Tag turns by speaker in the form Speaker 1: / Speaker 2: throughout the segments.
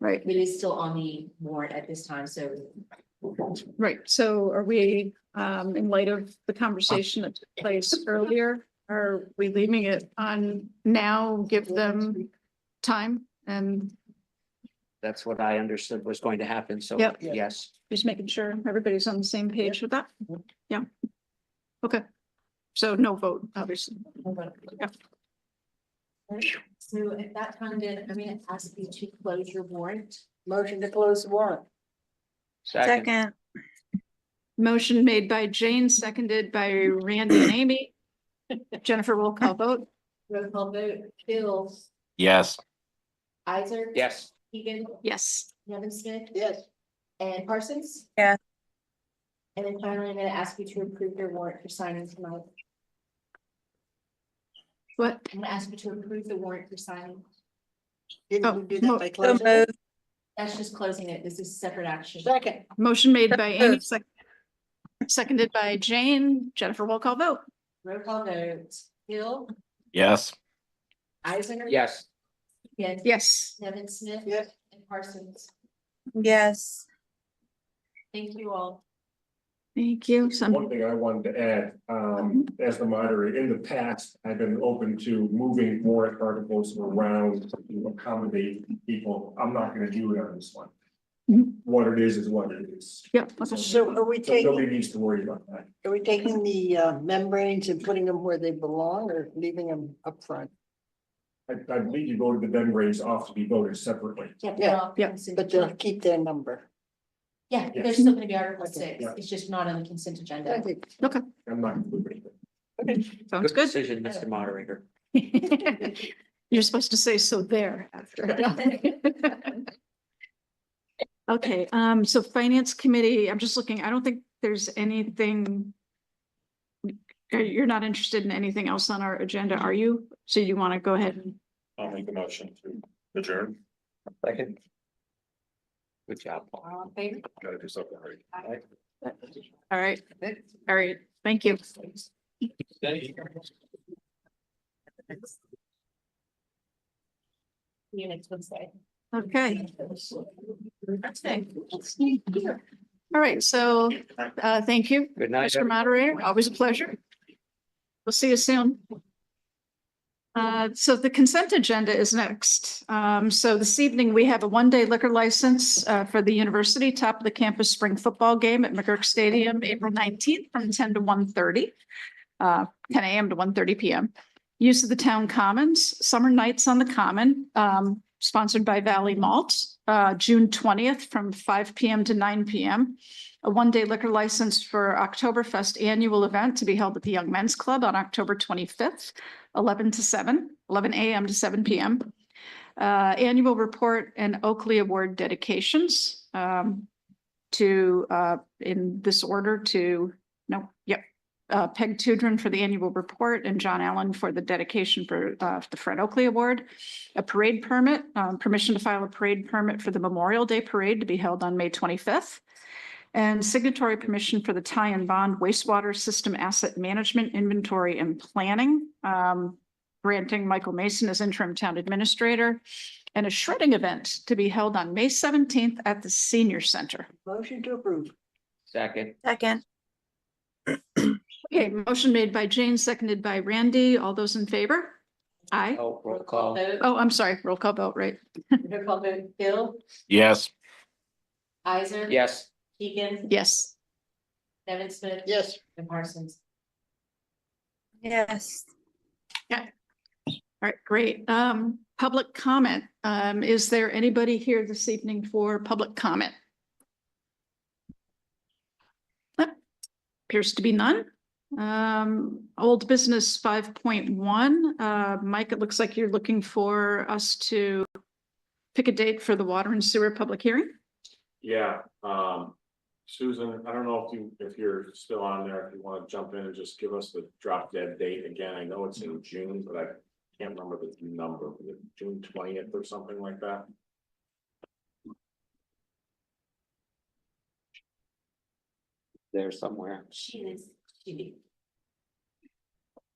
Speaker 1: Right.
Speaker 2: It is still on the warrant at this time, so
Speaker 1: Right, so are we, um, in light of the conversation that took place earlier, are we leaving it on now, give them time and
Speaker 3: That's what I understood was going to happen, so
Speaker 1: Yep.
Speaker 3: yes.
Speaker 1: just making sure everybody's on the same page with that? Yeah. Okay, so no vote, obviously.
Speaker 2: So at that time, then, I'm gonna ask you to close your warrant.
Speaker 4: Motion to close the warrant.
Speaker 3: Second,
Speaker 1: Motion made by Jane, seconded by Randy and Amy. Jennifer will call vote.
Speaker 2: Roll call vote, Bill,
Speaker 5: yes,
Speaker 2: Isaac.
Speaker 3: yes,
Speaker 2: Keegan,
Speaker 1: Yes,
Speaker 2: Nevin Smith,
Speaker 4: Yes.
Speaker 2: and Parsons.
Speaker 6: Yeah.
Speaker 2: And then finally, I'm gonna ask you to approve your warrant for signing tonight.
Speaker 1: what?
Speaker 2: I'm gonna ask you to approve the warrant for signing.
Speaker 4: Didn't
Speaker 1: Oh,
Speaker 4: you do
Speaker 1: no.
Speaker 4: that by
Speaker 6: so
Speaker 4: closing?
Speaker 6: moved,
Speaker 2: That's just closing it. This is separate action.
Speaker 4: Second,
Speaker 1: Motion made by Amy, sec- seconded by Jane. Jennifer will call vote.
Speaker 2: Roll call vote, Bill,
Speaker 5: yes,
Speaker 2: Isaac.
Speaker 3: yes,
Speaker 2: Yes.
Speaker 1: Yes.
Speaker 2: Nevin Smith.
Speaker 4: Yes.
Speaker 2: And Parsons.
Speaker 6: yes,
Speaker 2: Thank you all.
Speaker 1: Thank you.
Speaker 7: One
Speaker 1: Some,
Speaker 7: thing I wanted to add, um, as the moderator, in the past, I've been open to moving warrant articles around to accommodate people. I'm not gonna do it on this one.
Speaker 1: Mhm.
Speaker 7: What it is is what it is.
Speaker 1: yep.
Speaker 4: so are we
Speaker 7: So
Speaker 4: taking,
Speaker 7: Nobody needs to worry about that.
Speaker 4: are we taking the uh, membranes and putting them where they belong or leaving them up front?
Speaker 7: I, I believe you go to the membranes off to be voted separately.
Speaker 4: Yeah,
Speaker 1: yeah,
Speaker 4: But uh, they'll keep their number.
Speaker 2: Yeah,
Speaker 7: Yes.
Speaker 2: there's still gonna be Article six,
Speaker 7: Yeah.
Speaker 2: it's just not on the consent agenda.
Speaker 4: Okay.
Speaker 7: I'm not moving it.
Speaker 1: Sounds
Speaker 3: good
Speaker 1: good.
Speaker 3: decision, Mr. Moderator.
Speaker 1: You're supposed to say so there after. Okay, um, so Finance Committee, I'm just looking, I don't think there's anything. You're- You're not interested in anything else on our agenda, are you? So you want to go ahead and
Speaker 7: I'll make the motion to adjourn.
Speaker 3: Second. Good job, Paul.
Speaker 2: All in favor?
Speaker 7: Gotta do something right.
Speaker 1: All right, all right, thank you.
Speaker 2: Units would say.
Speaker 1: Okay,
Speaker 2: That's it.
Speaker 1: all right, so uh, thank you,
Speaker 3: Good night.
Speaker 1: Mr. Moderator, always a pleasure. We'll see you soon. Uh, so the consent agenda is next. Um, so this evening, we have a one-day liquor license uh, for the university, top of the campus spring football game at McGurk Stadium, April nineteenth, from ten to 1:30, uh, ten AM to 1:30 PM. Use of the town commons, summer nights on the common, um, sponsored by Valley Malt, uh, June twentieth, from five PM to nine PM a one-day liquor license for Oktoberfest annual event to be held at the Young Men's Club on October twenty-fifth, eleven to 7, 11 AM to seven PM. Uh, annual report and Oakley Award dedications, um, to, uh, in this order to, no, yep. Uh, Peg Tudrin for the annual report and John Allen for the dedication for, uh, the Fred Oakley Award. A parade permit, um, permission to file a parade permit for the Memorial Day Parade to be held on May twenty-fifth. And signatory permission for the tie and bond wastewater system asset management inventory and planning. um, granting Michael Mason as interim town administrator and a shredding event to be held on May seventeenth at the senior center.
Speaker 4: Motion to approve.
Speaker 3: Second,
Speaker 6: second,
Speaker 1: Okay, motion made by Jane, seconded by Randy. All those in favor? Aye.
Speaker 3: oh, roll call,
Speaker 2: vote,
Speaker 1: Oh, I'm sorry, roll call vote, right?
Speaker 2: roll call vote, Bill,
Speaker 5: yes.
Speaker 2: Isaac.
Speaker 3: yes.
Speaker 2: Keegan.
Speaker 1: Yes.
Speaker 2: Nevin Smith.
Speaker 4: Yes.
Speaker 2: And Parsons.
Speaker 6: yes.
Speaker 1: All right, great. Um, public comment. Um, is there anybody here this evening for public comment? Nope. Appears to be none. Um, old business five point one. Uh, Mike, it looks like you're looking for us to pick a date for the water and sewer public hearing.
Speaker 8: Yeah, um, Susan, I don't know if you, if you're still on there, if you wanna jump in and just give us the drop dead date again, I know it's in June, but I. Can't remember the number, was it June twentieth or something like that,
Speaker 3: There somewhere.
Speaker 2: She is, she,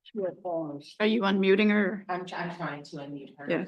Speaker 4: Sure, pause.
Speaker 1: Are you unmuting or?
Speaker 2: I'm, try- I'm trying to unmute her.
Speaker 1: Yeah.